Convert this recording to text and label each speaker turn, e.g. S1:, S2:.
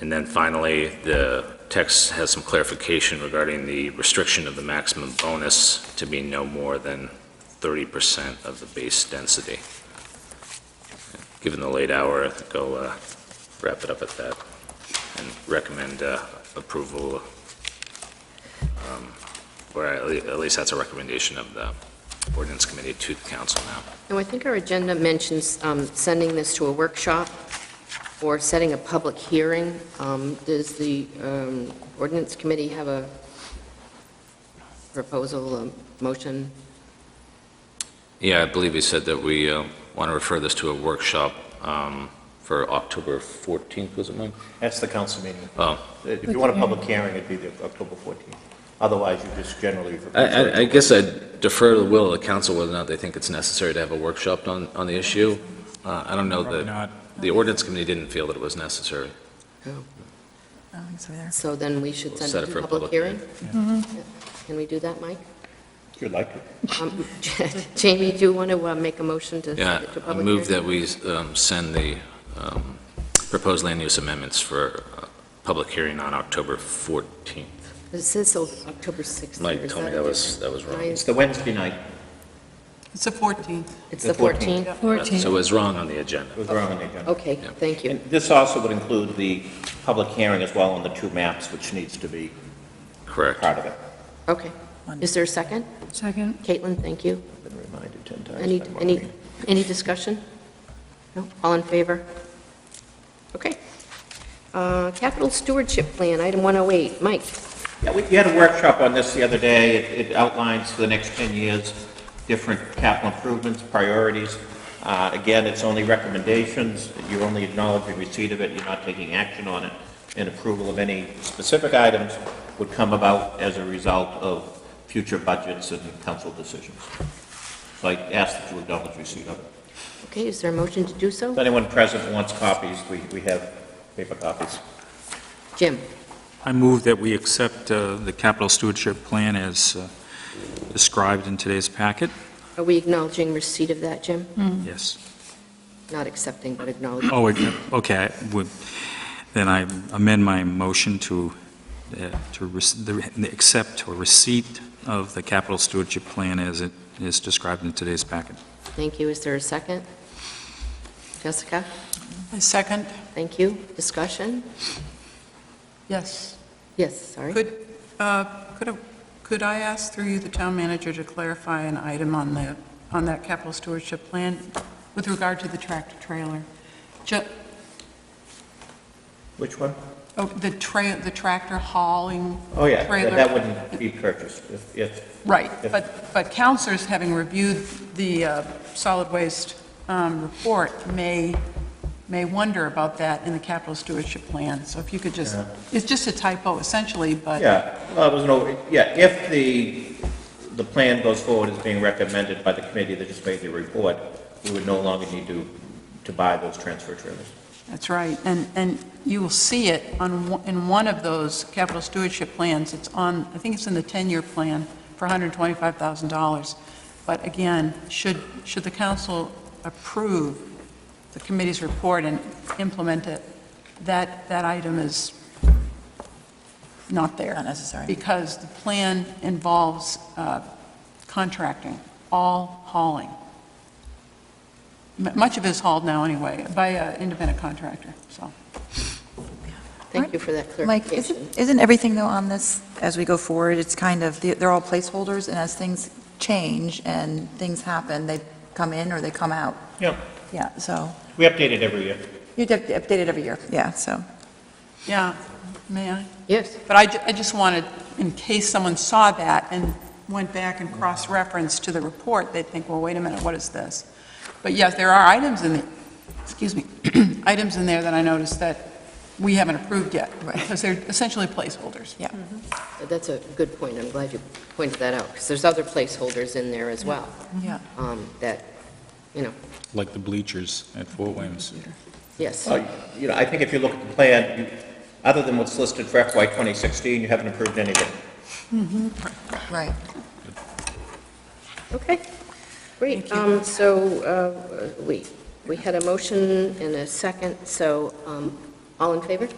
S1: And then finally, the text has some clarification regarding the restriction of the maximum bonus to be no more than 30% of the base density. Given the late hour, I think I'll uh, wrap it up at that and recommend uh, approval, um, or at le- at least that's a recommendation of the ordinance committee to the council now.
S2: No, I think our agenda mentions um, sending this to a workshop or setting a public hearing. Um, Does the um, ordinance committee have a proposal, a motion?
S1: Yeah, I believe he said that we want to refer this to a workshop um, for October 14th, was it, Mike?
S3: That's the council meeting.
S1: Oh.
S3: If you want a public hearing, it'd be the October 14th. Otherwise, you just generally.
S1: I- I, I guess I defer to the will of the council whether or not they think it's necessary to have a workshop on, on the issue. Uh, I don't know
S4: Probably
S1: that,
S4: not.
S1: the ordinance committee didn't feel that it was necessary.
S5: I don't think so either.
S2: So then we should
S1: We'll
S2: send
S1: set
S2: it
S1: it
S2: to
S1: for
S2: a
S1: a
S2: public
S1: public
S2: hearing?
S3: Mm-hmm.
S2: Can we do that, Mike?
S3: If you'd like to.
S2: Um, Jamie, do you want to uh, make a motion to
S1: Yeah,
S2: send it to a
S1: I
S2: public hearing?
S1: move that we um, send the um, proposed land use amendments for uh, public hearing on October 14th.
S2: It says so October 6th. or
S1: Mike
S2: is
S1: told me
S2: a
S1: that was,
S2: different-
S1: that was wrong.
S2: Mine-
S3: It's the Wednesday night.
S6: It's the 14th.
S2: It's
S3: the
S2: the 14th?
S1: So it was wrong on the agenda.
S3: It was wrong on the agenda.
S2: Okay,
S1: Yeah.
S2: thank you.
S3: And this also would include the public hearing as well on the two maps, which needs to be
S1: Correct.
S3: part of it.
S2: Okay. Is there a second?
S5: Second?
S2: Caitlin, thank you.
S3: I've been reminded 10 times.
S2: Any,
S3: by Mark
S2: any,
S3: Green.
S2: any discussion? No, all in favor? Okay. Uh, Capital Stewardship Plan, item 108, Mike.
S3: Yeah, we we had a workshop on this the other day. It it outlines for the next 10 years, different capital improvements, priorities. Uh, Again, it's only recommendations. You're only acknowledging receipt of it, you're not taking action on it. And approval of any specific items would come about as a result of future budgets and council decisions. So I ask that you acknowledge receipt of it.
S2: Okay, is there a motion to do
S3: If
S2: so?
S3: anyone present wants copies, we we have paper copies.
S2: Jim,
S4: I move that we accept uh, the capital stewardship plan as uh, described in today's packet.
S2: are we acknowledging receipt of that, Jim?
S4: Yes.
S2: Not accepting, but acknowledging.
S4: Oh, wait, okay, I would- then I amend my motion to, uh, to rec- the- the accept or receipt of the capital stewardship plan as it is described in today's packet.
S2: Thank you. Is there a second? Jessica,
S6: I second.
S2: thank you. Discussion?
S6: Yes.
S2: Yes, sorry.
S6: Could, uh, could, a- could I ask through you, the town manager, to clarify an item on the, on that capital stewardship plan with regard to the tractor trailer? Ju,
S3: Which one?
S6: oh, the tra, the tractor hauling trailer?
S3: Oh, yeah, that- that wouldn't be purchased if- if
S6: Right,
S3: If-
S6: but, but counselors, having reviewed the uh, solid waste um, report, may, may wonder about that in the capital stewardship plan. So if you could just, it's just a typo essentially, but.
S3: Yeah, well, it was an, over- yeah, if the, the plan goes forward as being recommended by the committee that just made the report, we would no longer need to, to buy those transfer trailers.
S6: That's right, and, and you will see it on, one- in one of those capital stewardship plans, it's on, I think it's in the 10-year plan for $125,000. But again, should, should the council approve the committee's report and implement it, that, that item is not there.
S5: Not necessary.
S6: Because the plan involves uh, contracting, all hauling. M- Much of it is hauled now anyway, by an independent contractor, so.
S2: Thank you for that
S5: Mike,
S2: clarification.
S5: isn't, isn't everything though on this, as we go forward, it's kind of, they're all placeholders, and as things change and things happen, they come in or they come out?
S3: Yeah.
S5: Yeah, so,
S3: We update it every year.
S5: you have to update it every year, yeah, so.
S6: Yeah, may I?
S2: Yes,
S6: But I, ju- I just wanted, in case someone saw that and went back and cross-referenced to the report, they'd think, well, wait a minute, what is this? But yes, there are items in the, excuse me, items in there that I noticed that we haven't approved yet.
S5: Right.
S6: Because they're essentially placeholders.
S2: that's a good point. I'm glad you pointed that out, because there's other placeholders in there as well.
S5: Yeah.
S2: um, That,
S4: Like the bleachers at Fort Williams.
S2: yes,
S3: Uh, You know, I think if you look at the plan, you- other than what's listed for FY 2016, you haven't approved anything.
S5: Right.
S2: okay, great. Um, So uh, we, we had a motion and a second, so um, all in favor?